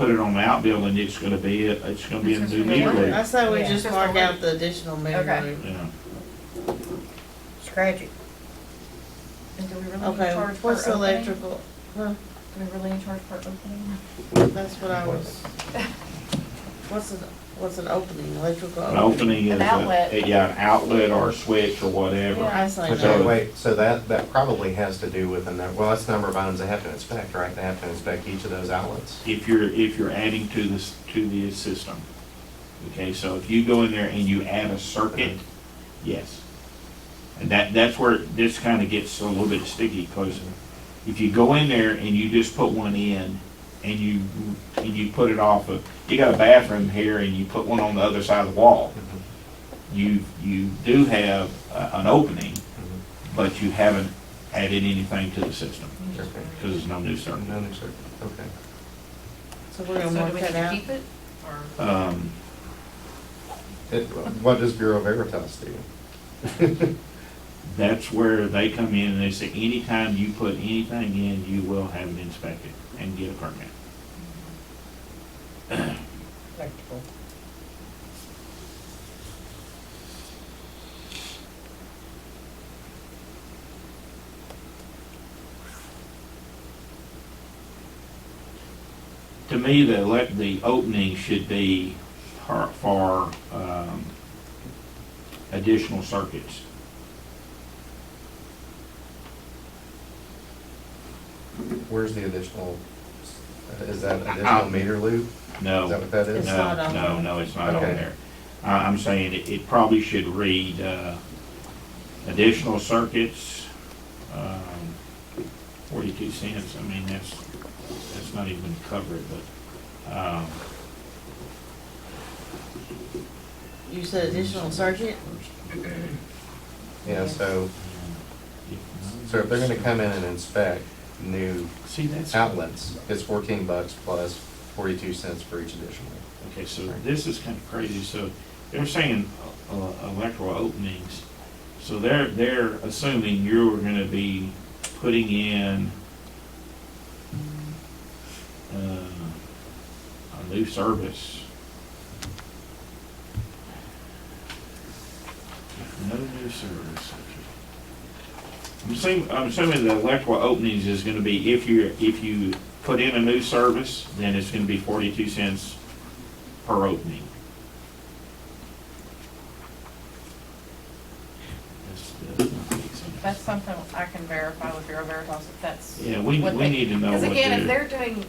put it on the outbuilding, it's gonna be, a- it's gonna be a new meter I read. say we Yeah. just Just mark the out the additional meter Okay. read. Yeah. Scratch it. And do we really need to Okay, charge per what's the opening? Do electrical, we really need to charge per opening? that's what I was. What's an, what's an opening, electrical? An opening? opening is An a- outlet. Yeah, an outlet or a switch or whatever. I say Okay, no. wait, so that, that probably has to do with, the nu- well, that's the number of items they have to inspect, right? They have to inspect each of those outlets. If you're, if you're adding to this, to the system. Okay, so if you go in there and you add a circuit, yes. And that, that's where this kinda gets a little bit sticky, cause if you go in there and you just put one in and you, and you put it off of, you got a bathroom here and you put one on the other side of the wall. You, you do have a- an opening, but you haven't added anything to the system, Okay. cause there's no new circuit. No new circuit, okay. So we're gonna So mark do we that out? keep it, or? Um, It, what does Bureau Veritas do? that's where they come in and they say, anytime you put anything in, you will have it inspected and get a permit. Electrical. To me, the elect, the opening should be for, for, um, additional circuits. Where's the additional, is that Out. additional meter loop? Uh, No. Is that what that It's is? No, not on no, there. no, it's not on Okay. there. I, I'm saying it, it probably should read, uh, additional circuits, um, forty-two cents, I mean, that's, that's not even covered, but, um, You said additional circuit? Yeah, so, so if they're gonna come in and inspect new See, that's, outlets, it's fourteen bucks plus forty-two cents for each additional. okay, so this is kinda crazy, so they're saying, uh, electrical openings, so they're, they're assuming you're gonna be putting in, uh, a new service. No new service, okay. I'm assuming, I'm assuming the electrical openings is gonna be, if you, if you put in a new service, then it's gonna be forty-two cents per opening. That's- that's not make sense. That's something I can verify with Bureau Veritas, if that's. Yeah, we, what we they- need to know what Because again, if they're, they're doing.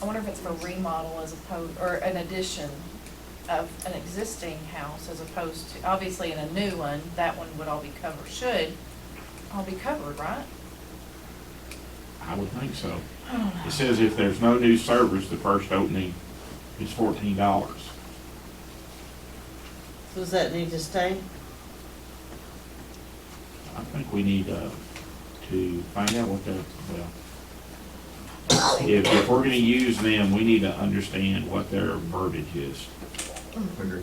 I wonder if it's for remodel as opposed, or an addition of an existing house as opposed to, obviously in a new one, that one would all be covered, should all be covered, right? I would think so. I don't know. It says if there's no new service, the first opening is fourteen dollars. So Does that need to stay? I think we need, uh, to find out what the, well, if, if we're gonna use them, we need to understand what their verbiage is. Agreed. You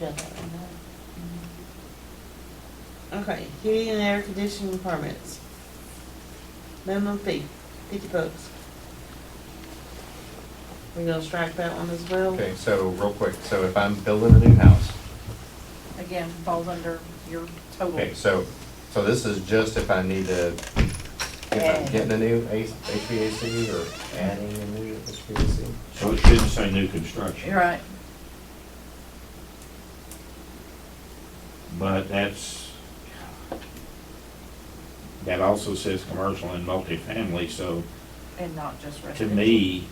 got that one, huh? Mm-hmm. Okay, heating and air conditioning permits. Minimum fee, fifty bucks. We gonna strike that one as well? Okay, so real quick, so if I'm building a new house, Again, falls under your total. Okay, so, so this is just if I need to, if I'm getting a new A- HVAC or adding a new HVAC? So it shouldn't say new construction, You're right. but that's, that also says commercial and multifamily, so And not just to residential. me,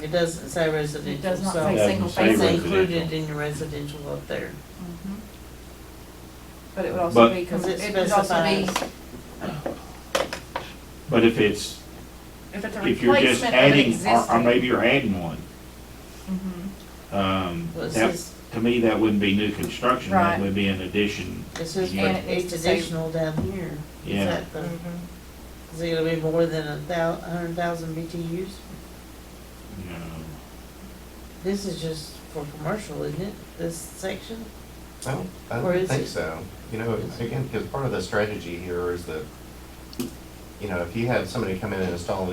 It doesn't say residential, so. It does not It say doesn't single say family. It's residential. included in your residential up there. Mhm. But it would But- also be, Mm-hmm. Because it it would also be, specifies. but if it's, if it's a if you're just replacement of an adding, existing. or, or maybe you're adding one, Mhm. um, Well, it that, says- to me, that wouldn't be new construction, that Right. would be an addition. It says Yeah. And it needs it's to say- additional down here. Is Yeah. that the- Is it gonna be more than a thou, a hundred thousand BTUs? No, This is just for commercial, isn't it, this section? I don't, I Or is don't think it- so. You know, again, because part of the strategy here is that you know, if you had somebody come in and install an